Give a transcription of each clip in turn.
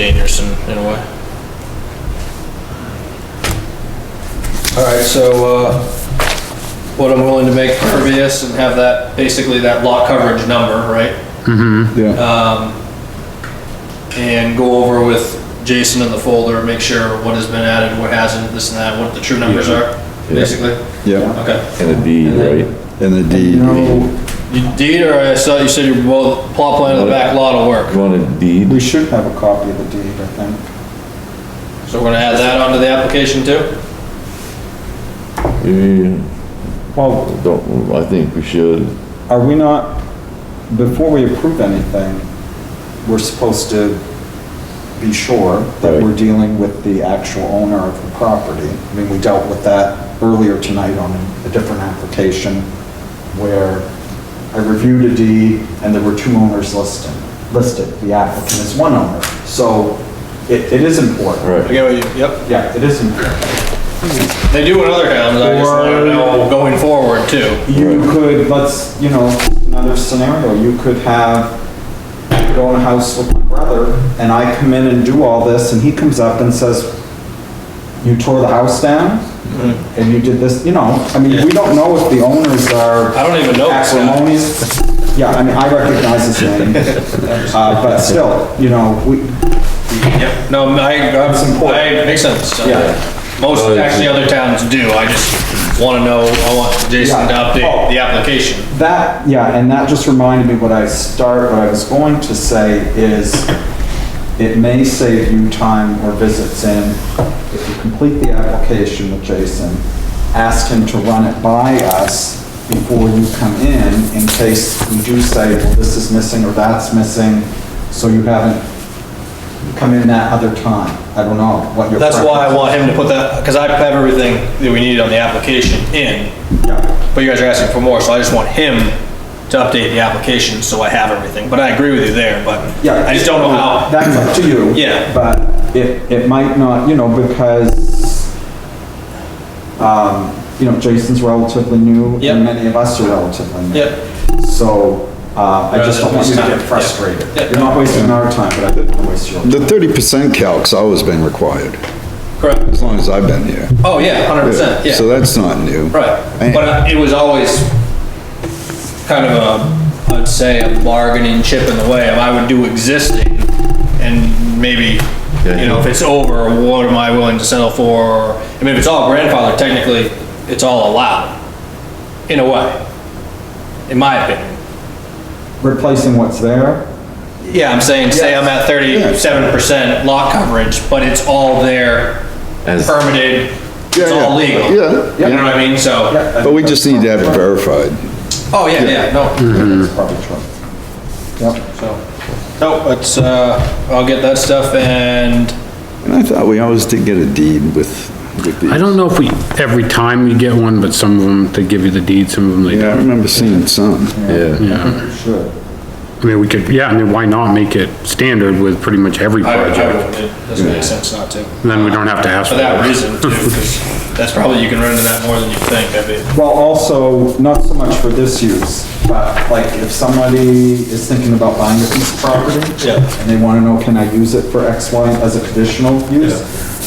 dangerous in, in a way. All right, so uh, what I'm willing to make pervious and have that, basically that lot coverage number, right? Yeah, And go over with Jason in the folder, make sure what has been added, what hasn't, this and that, what the true numbers are, basically? yeah, Okay. And a deed, right? and the deed. You deed, or I saw you said your, well, plot plan of the back lot will work, You want a deed? We should have a copy of the deed, I think. so we're gonna add that onto the application too? You Well, Don't, I think we should. are we not, before we approve anything, we're supposed to be sure that Right. we're dealing with the actual owner of the property. I mean, we dealt with that earlier tonight on a different application where I reviewed a deed and there were two owners listed, listed. The applicant is one owner. So it, it is important. Right. I get what you, yep. Yeah, it is important. They do in other towns, I just wanna know going forward too. you could, let's, you know, another scenario, you could have, go in a house with my brother, and I come in and do all this, and he comes up and says, you tore the house down, Mm-hmm. and you did this, you know, I mean, we don't know if the owners are I don't even know this guy. acrimonious. Yeah, I mean, I recognize his name, uh, but still, you know, we, Yep, no, I, I'm, I, makes sense. Yeah. Most, actually, other towns do, I just wanna know, I want Jason to Yeah. update the application. That, yeah, and that just reminded me what I start, what I was going to say is, it may save you time or visits in, if you complete the application with Jason, ask him to run it by us before you come in, in case we do say, well, this is missing or that's missing, so you haven't come in that other time. I don't know what your. That's why I want him to put that, cause I have everything that we need on the application in, Yeah, but you guys are asking for more, so I just want him to update the application, so I have everything, but I agree with you there, but Yeah. I just don't know how, That's up to you. Yeah. But it, it might not, you know, because, um, you know, Jason's relatively new. Yep. And many of us are relatively new. yep, So, uh, I just don't want you to Rather get than waste time. frustrated. Yeah. You're not wasting our time, but I didn't wanna waste yours. The thirty percent calc's always been required, correct. as long as I've been here. Oh, yeah, hundred percent, yeah. So that's not new. Right, Man. but uh, it was always kind of a, I'd say a bargaining chip in the way of I would do existing and maybe, you know, if it's over, what am I willing to settle for? Or, I mean, if it's all grandfather, technically, it's all allowed, in a way, in my opinion. Replacing what's there, Yeah, I'm saying, say I'm at thirty-seven percent lot coverage, but it's all there, As- permitted, it's Yeah, yeah. all legal. Yeah, You know what I mean? So, yeah. But we just need to have it verified. oh, yeah, yeah, no. That's probably true. Yep, So, no, it's, uh, I'll get that stuff and, And I thought we always did get a deed with, with I the, don't know if we, every time you get one, but some of them, they give you the deed, some of them they yeah, I don't. remember seeing some. Yeah. Yeah, sure. I mean, we could, yeah, I mean, why not make it standard with pretty much every I, I project? would, it doesn't make sense not to. And Then we don't have to ask For for that it. reason too, 'cause that's probably, you can run into that more than you think, I mean. Well, also, not so much for this use, but like if somebody is thinking about buying a piece of property. Yeah. And they wanna know, can I use it for X, Y, as a conditional use?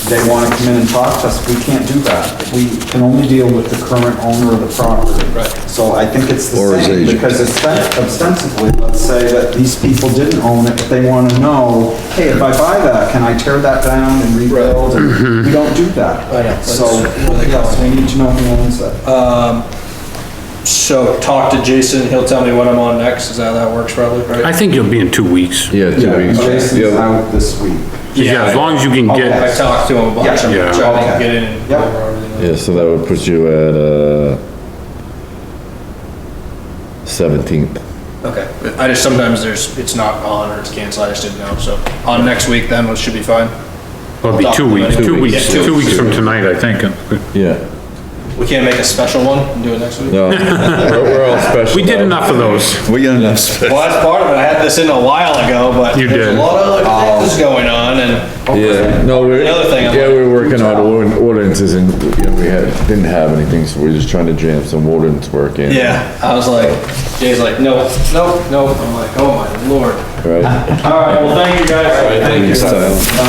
They wanna come in and talk to us, we can't do that. We can only deal with the current owner of the property. Right. So I think it's the Or his same, agent. because it's ostensibly, let's say that these people didn't own it, but they wanna know, hey, if I buy that, can I tear that down and rebuild? And we don't do that. I know, that's So, what they call yes, we need to know who owns it. Um, So talk to Jason, he'll tell me what I'm on next, is that how that works probably, I right? think you'll be in two weeks. Yeah, two Yeah, weeks. Jason's Yeah. out this week. Yeah, as long as you can I get, talked to him a bunch, I'm Yeah. trying Okay. to get in and go Yep. over everything. Yeah, so that would put you at, uh, seventeenth. Okay, I just, sometimes there's, it's not on or it's canceled, I just didn't know, so on next week then, it should be fine. well, it'll be two weeks, two Two weeks. weeks, Yeah, two two weeks weeks. from tonight, I think. Yeah. We can't make a special one and do it next week? No, we're we're all special. We did now. enough of those. We got enough space. Well, that's part of it. I had this in a while ago, but You there's did. Um, a lot of other things going on, and then. Yeah, no, we're, The other thing I'm yeah, like- we're working on ordin- ordinances and, you know, we had, didn't have anything, so we're just trying to jam some ordinance work in. Yeah, I was like, Jay's like, no, no, no. I'm like, oh my lord. Right? All right, well, thank you guys. Thank you. So-